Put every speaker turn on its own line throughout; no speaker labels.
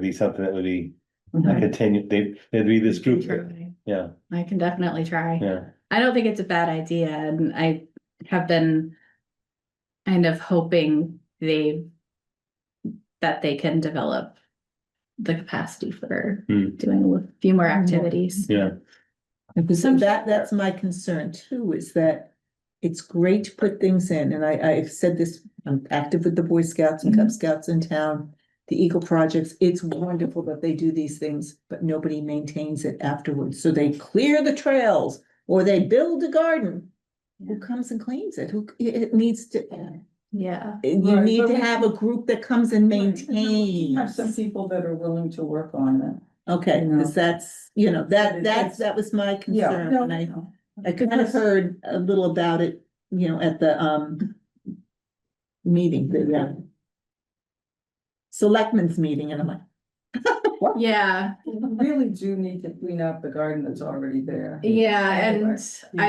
be something that would be a
Okay.
continue, they, it'd be this group, that-
Try.
yeah,
Mm-hmm. I can definitely try.
yeah.
I don't think it's a bad idea and I have been kind of hoping they that they can develop the capacity for
Hmm.
doing a li- few more
Mm.
activities.
Because
Some-
that, that's my concern too, is that it's great to put things in, and I, I've said this, I'm active with the Boy Scouts and Cub
Mm-hmm.
Scouts in town. The Eagle Projects, it's wonderful that they do these things, but nobody maintains it afterwards, so they clear the trails or they build a garden. Who comes and cleans it? Who, it, it needs to,
Yeah.
you
Right,
need
but
to
we-
have a group that comes and maintains.
Have some people that are willing to work on it.
Okay,
No.
cause that's, you know,
But
that,
it-
that's,
it's-
that was my
Yeah.
concern, and I,
no.
I kind of
Because-
heard a little about it, you know, at the, um. Meeting, the, uh. Selectmen's meeting, and I'm like,
Yeah,
We Really do need to clean up the garden that's already there.
yeah, and I
And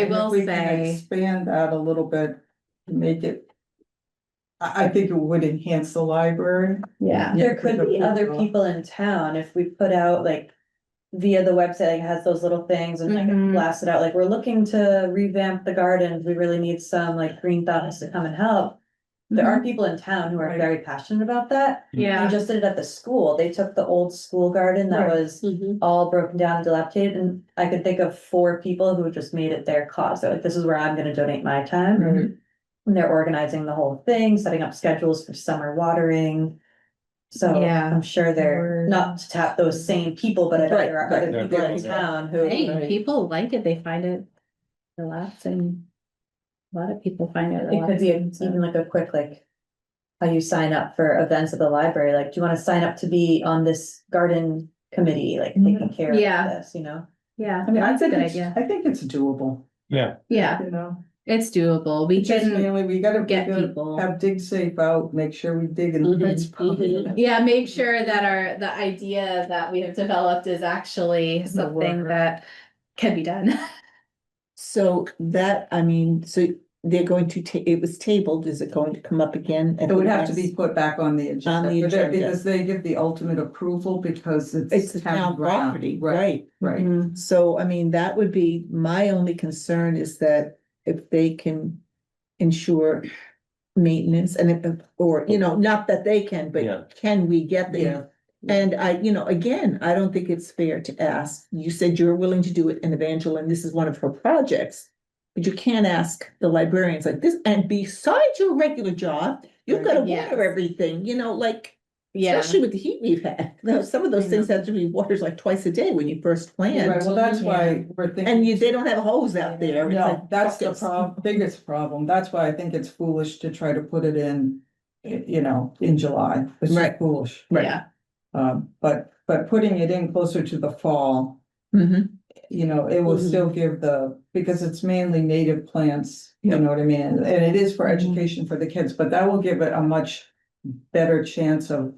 if
will
we can
say,
Expand that a little bit, to make it. I, I think it would enhance the library.
yeah,
There could be other people in town if we put out like via the website, like has those little things and like
Mm-hmm.
Mhm.
blast it out, like we're looking to revamp the gardens, we really need some like green thumbs to come and help. There are people in town who
Mm-hmm.
are
Right.
very passionate about that.
Hmm.
We
yeah.
just did it at the school. They took the old school garden that
Right.
was
Mm-hmm.
all broken down and dilapidated and I could think of four people who just made it their cause. They're like, this is where I'm gonna donate my time.
Right.
And they're organizing the whole thing, setting up schedules for summer watering. So
Yeah.
I'm sure they're
Word.
not to tap those same people, but I bet there are
Right,
other
right,
people in
right.
town who.
Hey, people like it, they find it relaxing. A lot of people find it
It could
relaxing.
be even
so-
like a quick like. How you sign up for events at the library, like, do you wanna sign up to be on this garden committee, like taking care of
Yeah.
this, you know?
Yeah,
I mean, I
that's a
think,
good
it's-
idea.
I think it's doable,
Yeah,
you know,
it's doable. We
It's just
can
mainly, we gotta, we
get
gotta
people. Mm-hmm,
have dig safe out, make sure we dig and.
Mhm,
it's probably-
Yeah, make sure that our, the idea that we have developed is actually something
worker.
that can be done.
so that, I mean, so they're going to ta- it was tabled, is it going to come up again? at
It would
the
have to be
next-
put back on the
On the
agenda, for that,
agenda.
because they give the ultimate approval because it's.
It's the town
ground.
property, right?
Right,
Mm. So, I mean, that would be, my only concern is that if they can ensure maintenance and, if- or, you know, not that they can,
Yeah.
but can we get
yeah.
there? And I, you know, again, I don't think it's fair to ask, you said you're willing to do it in Evangeline, this is one of her projects. But you can't ask the librarians like this, and besides your regular job, you've got to
Right. Yes.
water everything, you know, like.
Yeah.
Especially with the heat we've had, Now, some of those
I
things have to be watered like twice a day when you first
Right,
plant.
well, that's why we're thinking.
And you, they don't have hose out there. It's
No,
like
that's the
buckets.
prob, biggest problem. That's why I think it's foolish to try to put it in, i- you know, in July. It's
Right.
foolish.
Right.
Yeah,
Um, but, but putting it in closer to the fall,
Mhm.
you know, it will
Mhm.
still give the, because it's mainly native plants, you
Yep.
know what I mean? And it is for
Mhm.
education for the kids, but that will give it a much better chance of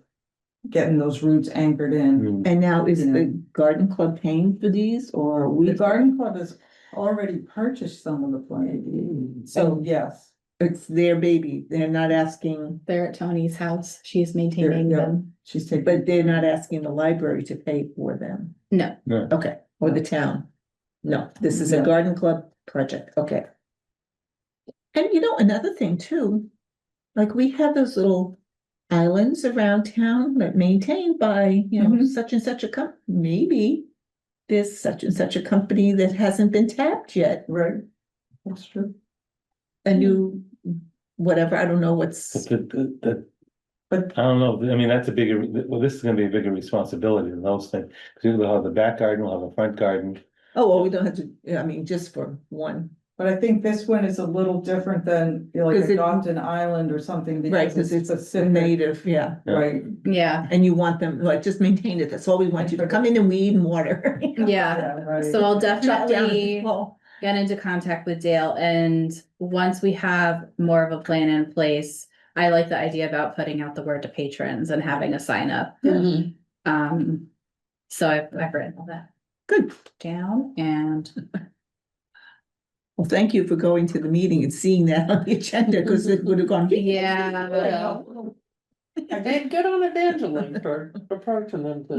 getting those roots anchored in.
Mm.
And now is
You know.
the garden club paying for these or are we?
The garden club has already purchased some of the plants, so
So-
yes.
It's their baby. They're not asking,
they're at Tony's house. She's maintaining
yeah.
them.
She's taking.
but they're not asking the library to pay for them.
No.
No.
Okay, or the town. No, this is a
No.
garden club project. Okay. And you know, another thing too, like we have those little islands around town that maintained by, you know,
Mhm.
such and such a company. maybe. There's such and such a company that hasn't been tapped yet,
Right. That's true.
a
Mm-hmm.
new, whatever, I don't know what's.
But the- the- the-
But-
I don't know, I mean, that's a bigger, well, this is gonna be a bigger responsibility than those things, because we'll have the back garden, we'll have a front garden.
Oh, well, we don't have to, yeah, I mean, just for one,
But I think this one is a little different than you know, like
'Cause it-
adopt an island or something
Right,
because
'cause
it's a
Mm-hmm.
the
civic,
native, yeah,
right?
Yeah,
and you want them, like, just maintain it, that's all we want you to come in and weed and water.
yeah.
right.
So I'll
Chop down the
definitely
wall.
get into contact with Dale and once we have more of a plan in place, I like the idea about putting out the word to patrons and having a sign up. Um, so I've, I've written all that
Good,
down and
well, thank you for going to the meeting and seeing that on the agenda, because it would have gone.
yeah.
I
And good on Evangeline for approaching them to